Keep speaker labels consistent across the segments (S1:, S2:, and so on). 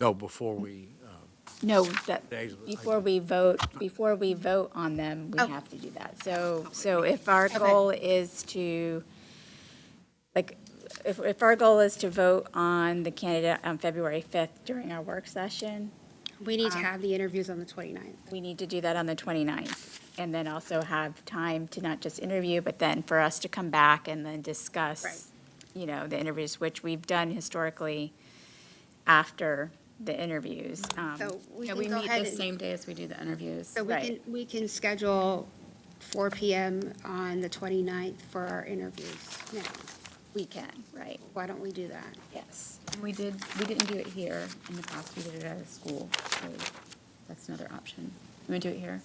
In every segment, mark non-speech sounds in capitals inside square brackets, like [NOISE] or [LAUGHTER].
S1: No, before we, uh,
S2: No, that,
S1: Days of the-
S2: before we vote, before we vote on them, we
S3: Oh.
S2: have to do that. So, so if our
S3: Okay.
S2: goal is to, like, if, if our goal is to vote on the candidate on February 5th during our work session,
S3: We
S4: Um,
S3: need to have the interviews on the 29th.
S2: we need to do that on the 29th. And then also have time to not just interview, but then for us to come back and then
S3: Right.
S2: discuss, you know, the interviews, which we've done historically after the interviews. Um,
S3: So we
S4: Yeah,
S3: can
S4: we
S3: go
S4: meet
S3: ahead
S4: the
S3: and-
S4: same day as we do the interviews.
S3: So we can,
S2: Right.
S3: we can schedule 4 PM on the 29th for our interviews now.
S2: We can, right,
S3: Why don't we do that?
S2: yes.
S4: And We did, we didn't do it here in the past, we did it at a school, so that's another option. You want to do it here?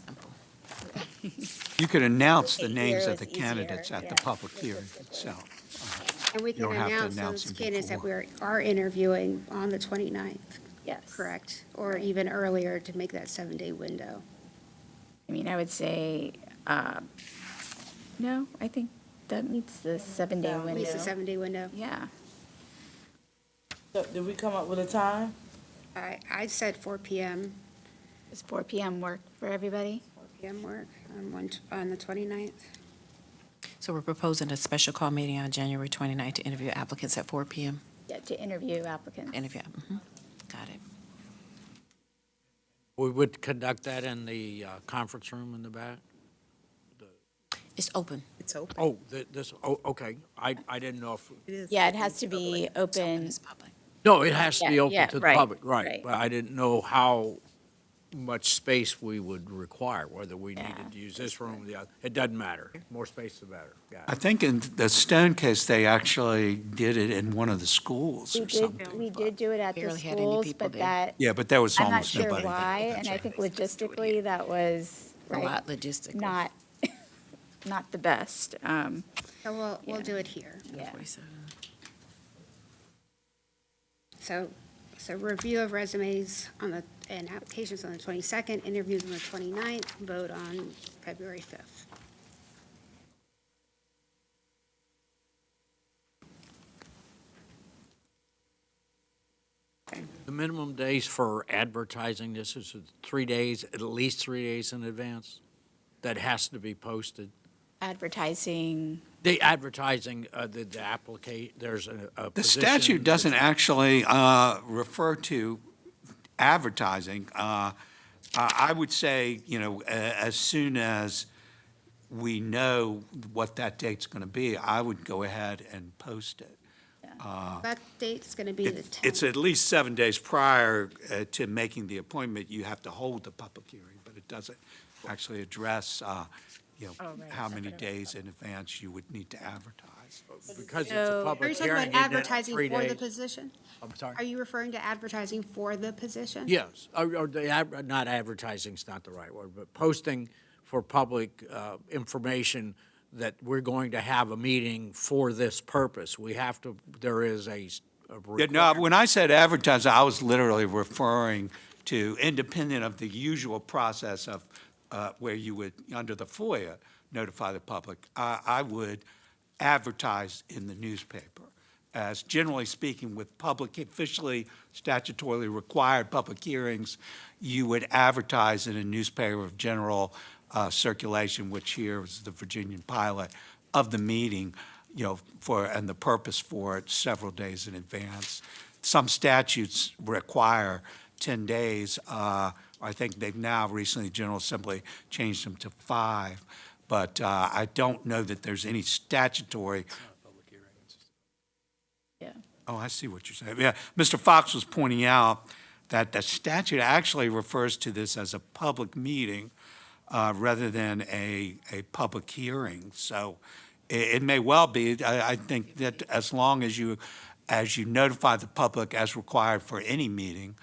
S5: You could announce the
S2: Okay,
S5: names
S2: here
S5: of the
S2: is easier,
S5: candidates at the
S2: yeah.
S5: public hearing itself.
S3: And we
S5: You
S3: can
S5: don't have to
S3: announce those
S5: announce them
S3: candidates that
S5: before.
S3: we are interviewing on the 29th,
S2: Yes.
S3: correct? Or even earlier to make that seven-day window.
S2: I mean, I would say, uh, no, I think that meets the seven-day
S4: Oh,
S3: At least a
S2: window.
S3: seven-day window.
S2: Yeah,
S6: So, Did we come up with a time?
S3: I, I said 4 PM,
S2: does four PM work for everybody?
S3: 4 PM work on one, on the 29th.
S7: So we're proposing a special call meeting on January 29th to interview applicants at 4 PM.
S2: Yeah, to interview applicants.
S7: Interview, mhm. got it.
S1: we would conduct that in the uh, conference room in the back?
S7: It's open.
S1: Oh, th- this, oh, okay, I, I didn't know if,
S2: Yeah, it has to be
S7: It's open,
S2: open,
S7: it's public.
S1: no, it has to be
S2: Yeah,
S1: open
S2: yeah,
S1: to the
S2: right,
S1: public,
S2: right.
S1: right. But I didn't know how much space we would require, whether we
S2: Yeah.
S1: needed to use this room or the other. It doesn't matter. More space the better, got
S5: I
S1: it.
S5: think in the Stone case, they actually did it in one of the schools
S2: we
S5: or
S2: did,
S5: something.
S2: we did do it at the
S7: Barely had any
S2: schools,
S7: people
S2: but
S7: there.
S2: that,
S5: Yeah, but there was
S2: I'm not
S5: almost
S2: sure
S5: nobody.
S2: why, and I think logistically, that was,
S7: A
S2: right,
S7: lot logistically.
S2: not, [LAUGHS] not the best. Um,
S3: So we'll, we'll
S2: Yeah.
S3: do it here.
S2: yeah.
S7: 47.
S3: So, so review of resumes on the, and applications on the 22nd, interviews on the 29th, vote on February 5th.
S1: The minimum days for advertising this is three days, at least three days in advance? That has to be posted?
S2: Advertising,
S1: The advertising, uh, the, the applicate, there's a, a
S5: The
S1: position-
S5: statute doesn't actually uh, refer to advertising. Uh, I I would say, you know, a- as soon as we know what that date's going to be, I would go ahead and post it.
S1: Ah.
S3: That date's going to be the
S5: It- It's
S3: 10th.
S5: at least seven days prior uh, to making the appointment, you have to hold the public hearing, but it doesn't actually address, uh, you
S3: Oh,
S5: know, how many days in advance you would need to advertise.
S1: Because it's a
S2: So- Are you
S3: Are
S1: public
S3: you talking
S1: hearing.
S3: about
S1: isn't it?
S3: advertising
S1: Three
S3: for the
S1: days.
S3: position?
S1: I'm sorry?
S3: Are you referring to advertising for the position?
S1: Yes, or, or the, ad- not advertising's not the right word, but posting for public uh, information that we're going to have a meeting for this purpose. We have to, there is a. s- a
S5: Yeah, No,
S1: requirement.
S5: when I said advertise, I was literally referring to independent of the usual process of uh, where you would, under the FOIA, notify the public. I, I would advertise in the newspaper as generally speaking with public, officially statutorily required public hearings, you would advertise in a newspaper of general uh, circulation, which here is the Virginian Pilot, of the meeting you know, for, and the purpose for it several days in advance. Some statutes require 10 days. Uh, I think they've now recently, General Assembly changed them to five. But uh, I don't know that there's any statutory,
S2: yeah.
S5: oh, I see what you're saying. Yeah, Mr. Fox was pointing out that the statute actually refers to this as a public meeting uh, rather than a, a public hearing. So it, it may well be, I, I think that as long as you, as you notify the public as required for any meeting,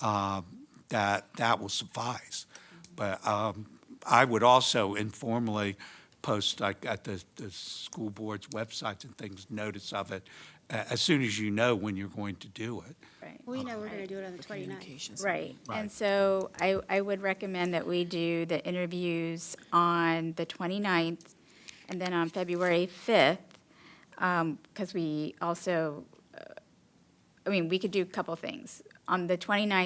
S5: uh, that, that will suffice. But um, I would also informally post, like, at the, the school board's websites and things, notice of it, a- as soon as you know when you're going to do it.
S2: Right.
S3: We know we're going to do it on the 29th.
S7: Communications.
S2: Right, and
S5: Right.
S2: so I, I would recommend that we do the interviews on the 29th, and then on February um, 5th, because we also, uh, I mean, we could do a couple things. on the 29th,